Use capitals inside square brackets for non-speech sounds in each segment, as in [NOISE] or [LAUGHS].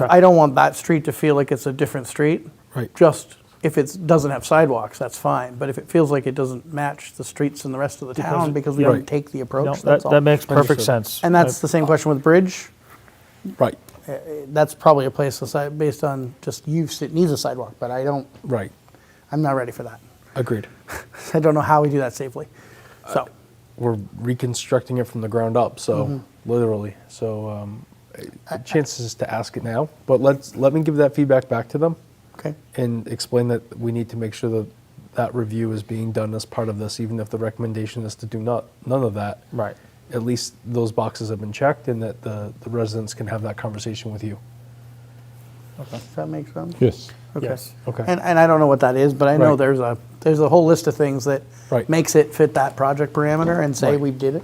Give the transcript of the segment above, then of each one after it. of, I don't want that street to feel like it's a different street. Right. Just if it doesn't have sidewalks, that's fine, but if it feels like it doesn't match the streets in the rest of the town because we yeah. didn't take the No, approach, that, that's that all. makes perfect Understood. sense. And that's the same question with bridge, Right, that's probably a place that's, uh, based on just use, it needs a sidewalk, but I don't, right. I'm not ready for that. [LAUGHS] Agreed. I don't know how we do that safely, so. We're reconstructing it from the ground up, so Mm-hmm. literally. So um, chances to ask it now, but let's let me give that feedback back to them Okay. and explain that we need to make sure that that review is being done as part of this, even if the recommendation is to do not none of that. Right. At least those boxes have been checked, and that the, the residents can have that conversation with you. Does that make sense? Yes. Okay. Yes. Okay. And, and I don't know what that is, but I know Right. there's a there's a whole list of things that Right. makes it fit that project parameter and say Right. we did it.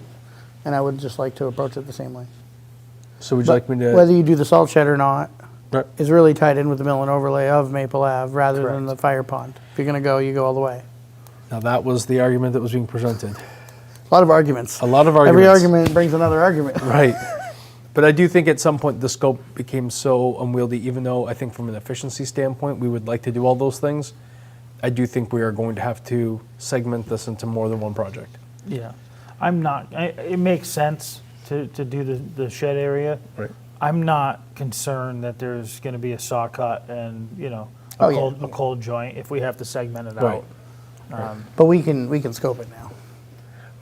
And I would just like to approach it the same way. So would you But like me to? Whether you do the salt shed or not Right. is really tied in with the mill and overlay of Maple Ave rather than Correct. the fire pond. If you're going to go, you go all the way. Now that was the argument that was being presented. A lot of arguments. A lot of Every arguments. argument brings another argument. Right. But I do think at some point the scope became so unwieldy, even though I think from an efficiency standpoint, we would like to do all those things. I do think we are going to have to segment this into more than one project. Yeah, I'm not, I, it makes sense to, to do the, the shed area. Right. I'm not concerned that there's gonna be a saw cut and, you know, Oh, a yeah. cold, a cold joint if we have to segment it Right. out. But we can we can scope it now.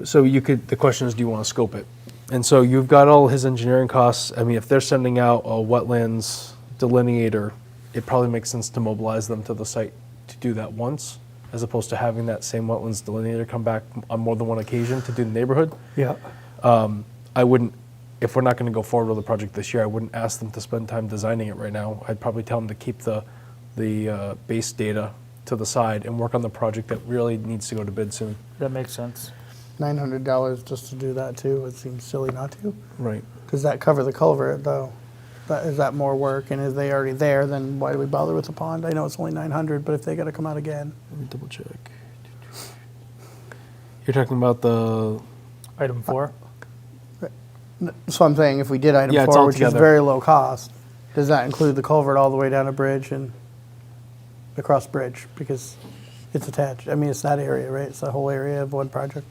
So you could, the question is, do you want to scope it? And so you've got all his engineering costs. I mean, if they're sending out a wetlands delineator, it probably makes sense to mobilize them to the site to do that once, as opposed to having that same wetlands delineator come back on more than one occasion to do the neighborhood. Yeah. I wouldn't, if we're not going to go forward with the project this year, I wouldn't ask them to spend time designing it right now. I'd probably tell them to keep the, the uh, base data to the side and work on the project that really needs to go to bid soon. That makes sense. Nine hundred dollars just to do that too. It seems silly not to. Right. Does that cover the culvert though? That, is that more work and is they already there, then why do we bother with the pond? I know it's only nine hundred, but if they gotta come out again, Let me double check. You're talking about the, Item four, so I'm saying if we did item Yeah, it's four, all which is together. very low cost, does that include the culvert all the way down a bridge and across bridge? Because it's attached, I mean, it's that area, right? It's the whole area of one project?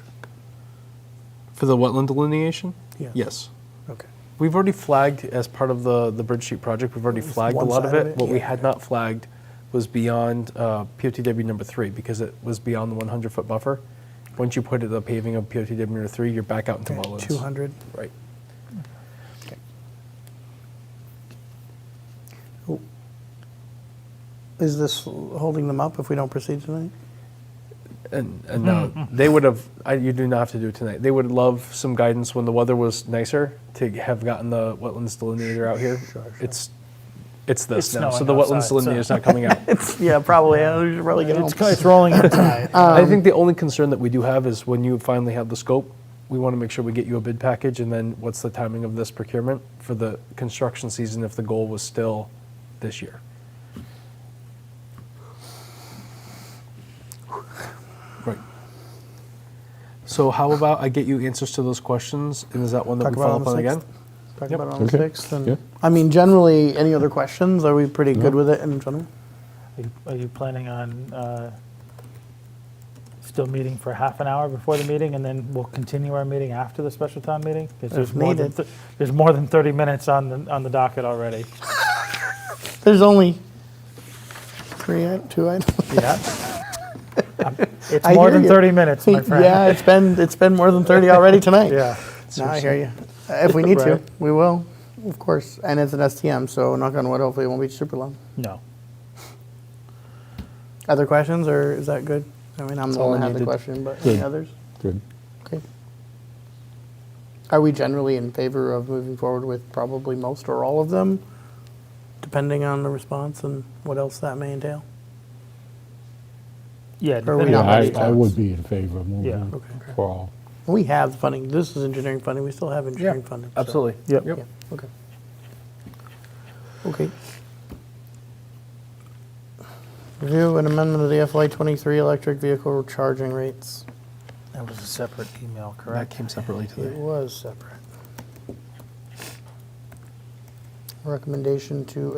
for the wetland delineation? Yes. Yes. Okay. We've already flagged as part of the, the bridge sheet project, we've already least flagged a one lot of side of it. it, What we yeah. had not flagged was beyond uh, POTW number three because it was beyond the 100 foot buffer. Once you put it the paving of POTW number three, you're back out into wetlands. Two hundred, Right. is this holding them up if we don't proceed tonight? [LAUGHS] And, and no, Mm-hmm. they would have, I, you do not have to do it tonight. They would love some guidance when the weather was nicer to have gotten the wetlands delineator out here. It's, it's this It's now. So snowing the wetlands outside, so- delineator's not coming [LAUGHS] out. Yeah, probably, I should probably get home. it's, it's rolling in tide. Um, I think the only concern that we do have is when you finally have the scope, we want to make sure we get you a bid package, and then what's the timing of this procurement for the construction season if the goal was still this year? Right. So how about I get you answers to those questions, and is that one that Talk we about on the follow up on again? 6th? Talk Yep. about it on the Okay. 6th. and- Yeah. I mean, generally, any other questions? Are we pretty good with it in general? Are you- Are you planning on, uh, still meeting for half an hour before the meeting and then we'll continue our meeting after the special town meeting? 'Cause there's more than needed. thir- There's more than thirty minutes on the, on the docket already. There's only three, i- two items. Yeah. [LAUGHS] It's I more hear than you. 30 minutes, my friend. Yeah, it's been, it's been more than 30 already tonight. [LAUGHS] Yeah. No, I hear you. Uh, If we need to, Right. we will, of course. And it's an STM, so knock on wood, hopefully it won't be super long. No. Other questions, or is that good? I mean, I'm the all one that I had the needed. question, but any Good. others? Good. Okay. Are we generally in favor of moving forward with probably most or all of them, depending on the response and what else that may entail? Yeah. Or we depending Yeah, on not I, ready I to- would be in favor of Yeah. moving Okay. for all. We have funding, this is engineering funding, we still have engineering funding. so- Absolutely. Yep. Yeah, okay. Okay. Review an amendment of the FY twenty-three electric vehicle charging rates. That was a separate email, That correct? came separately It today. was separate. Recommendation to